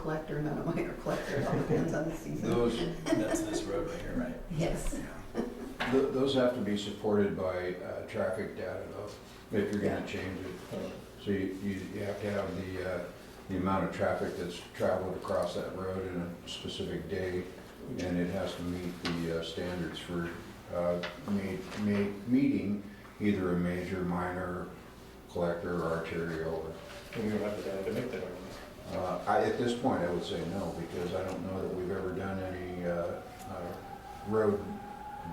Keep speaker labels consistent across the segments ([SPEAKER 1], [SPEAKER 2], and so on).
[SPEAKER 1] collector, not a minor collector, it all depends on the season.
[SPEAKER 2] Those,
[SPEAKER 3] That's this road right here, right?
[SPEAKER 1] Yes,
[SPEAKER 2] th- those have to be supported by uh, traffic data though, if you're gonna change it. So you, you you have to have the, uh, the amount of traffic that's traveled across that road in a specific day, and it has to meet the uh, standards for uh, ma- ma- meeting either a major, minor, collector, or arterial.
[SPEAKER 4] And you don't have the data to make that argument.
[SPEAKER 2] Uh, I, at this point, I would say no, because I don't know that we've ever done any uh, uh, road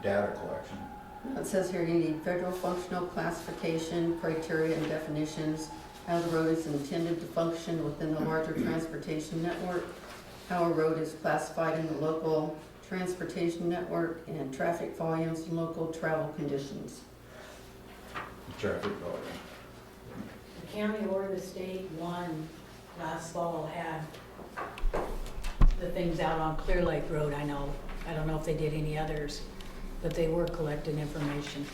[SPEAKER 2] data collection.
[SPEAKER 1] it says here you need federal functional classification, criteria and definitions, how the road is intended to function within the larger transportation network, how a road is classified in the local transportation network, and traffic volumes and local travel conditions.
[SPEAKER 2] Traffic volume.
[SPEAKER 5] The county or the state one last fall had the things out on Clear Lake Road, I know. I don't know if they did any others, but they were collecting information.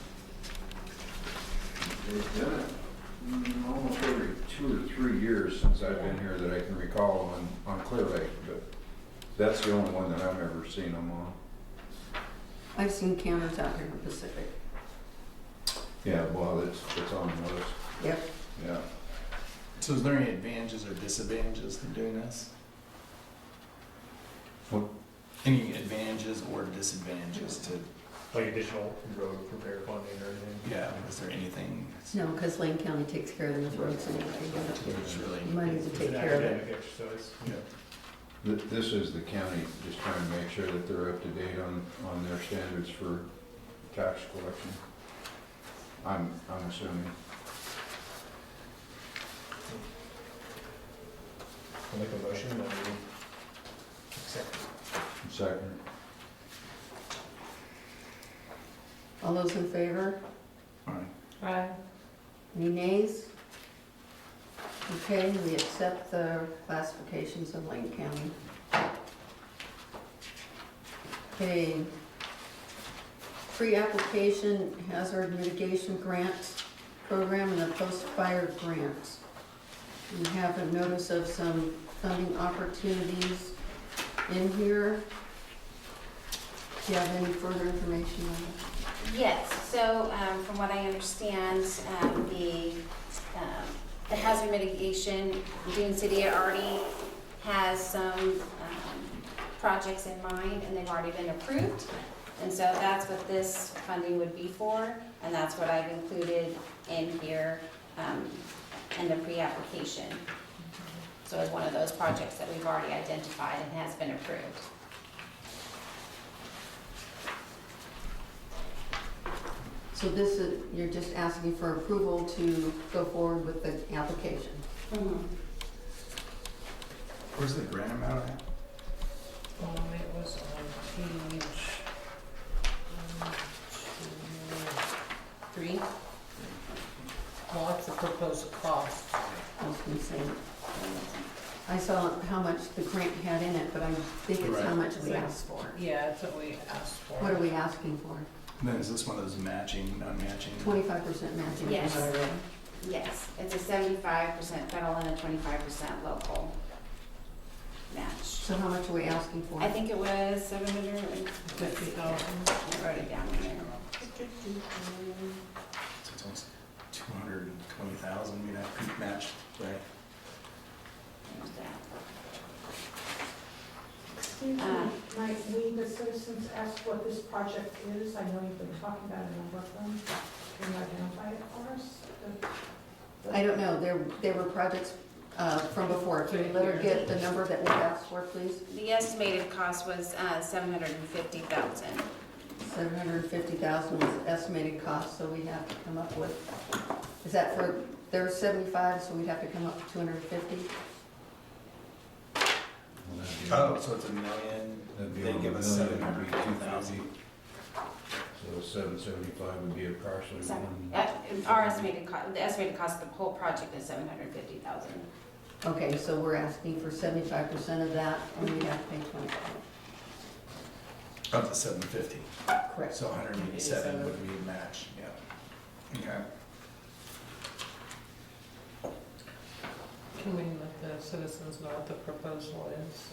[SPEAKER 2] They've done it mm, almost every two or three years since I've been here that I can recall on, on Clear Lake, but that's the only one that I've ever seen them on.
[SPEAKER 1] I've seen counters out here in Pacific.
[SPEAKER 2] Yeah, well, it's, it's on the list,
[SPEAKER 1] Yep,
[SPEAKER 2] yeah.
[SPEAKER 3] So is there any advantages or disadvantages to doing this?
[SPEAKER 2] What?
[SPEAKER 3] Any advantages or disadvantages to,
[SPEAKER 4] Like additional road repair funding or anything.
[SPEAKER 3] yeah, is there anything that's-
[SPEAKER 1] no, because Lane County takes care of those roads anyway. You don't
[SPEAKER 3] that's really?
[SPEAKER 1] Money to
[SPEAKER 4] It's
[SPEAKER 1] take
[SPEAKER 4] an
[SPEAKER 1] care of it.
[SPEAKER 4] academic exercise.
[SPEAKER 3] Yeah.
[SPEAKER 2] Th- This is the county just trying to make sure that they're up to date on, on their standards for tax collection. I'm, I'm assuming.
[SPEAKER 4] I'll make a motion that we accept.
[SPEAKER 2] Second.
[SPEAKER 1] All those in favor?
[SPEAKER 3] All right.
[SPEAKER 5] Right.
[SPEAKER 1] Any nays? Okay, we accept the classifications of Lane County. Okay. Pre-application hazard mitigation grant program and the post-fire grant. We have a notice of some funding opportunities in here. Do you have any further information on that?
[SPEAKER 6] Yes, so um, from what I understand, um, the, um, the hazard mitigation, Dune City already has some um, projects in mind and they've already been approved. And so that's what this funding would be for, and that's what I've included in here um, in the pre-application. So it's one of those projects that we've already identified and has been approved.
[SPEAKER 1] So this is, you're just asking for approval to go forward with the application?
[SPEAKER 3] Where's the grant amount at?
[SPEAKER 7] Um, it was on page, um, two,
[SPEAKER 6] Three?
[SPEAKER 7] well, that's the proposed cost.
[SPEAKER 1] I was gonna say, I saw how much the grant had in it, but I think it's how
[SPEAKER 3] Right.
[SPEAKER 1] much we asked for.
[SPEAKER 7] Yeah, that's what we asked for.
[SPEAKER 1] What are we asking for?
[SPEAKER 3] And Then is this one of those matching, non-matching?
[SPEAKER 1] Twenty-five percent matching? is
[SPEAKER 6] Yes.
[SPEAKER 1] what I read.
[SPEAKER 6] Yes, it's a seventy-five percent federal and a twenty-five percent local match.
[SPEAKER 1] So how much are we asking for?
[SPEAKER 6] I think it was seven hundred and
[SPEAKER 7] Fifty
[SPEAKER 6] fifty. I
[SPEAKER 7] thousand.
[SPEAKER 6] wrote it down there.
[SPEAKER 3] So it's almost two hundred and twenty thousand, you know, match, right?
[SPEAKER 6] There's that.
[SPEAKER 8] Excuse me,
[SPEAKER 6] Uh,
[SPEAKER 8] might we, the citizens, ask what this project is? I know you've been talking about it in Brooklyn. Can you identify it for us? The- the-
[SPEAKER 1] I don't know, there, there were projects, uh, from before. Can you let her get the number that we asked for, please?
[SPEAKER 6] The estimated cost was, uh, seven hundred and fifty thousand.
[SPEAKER 1] Seven hundred and fifty thousand was the estimated cost, so we have to come up with, is that for, there's seventy-five, so we'd have to come up with two hundred and fifty?
[SPEAKER 2] Well, that'd be-
[SPEAKER 3] Oh, so it's a million,
[SPEAKER 2] That'd be
[SPEAKER 3] they
[SPEAKER 2] over
[SPEAKER 3] give
[SPEAKER 2] a
[SPEAKER 3] us seven
[SPEAKER 2] million, that'd
[SPEAKER 3] hundred
[SPEAKER 2] be
[SPEAKER 3] and two thousand.
[SPEAKER 2] 250. So seven seventy-five would be approximately
[SPEAKER 6] Sorry.
[SPEAKER 2] one.
[SPEAKER 6] Uh, our estimated cost, the estimated cost of the whole project is seven hundred and fifty thousand.
[SPEAKER 1] Okay, so we're asking for seventy-five percent of that, and we have to pay twenty-five.
[SPEAKER 3] Up to seven fifty,
[SPEAKER 1] Correct.
[SPEAKER 3] so hundred and eighty-seven would be a match, yeah. Okay.
[SPEAKER 7] Can we let the citizens know what the proposal is?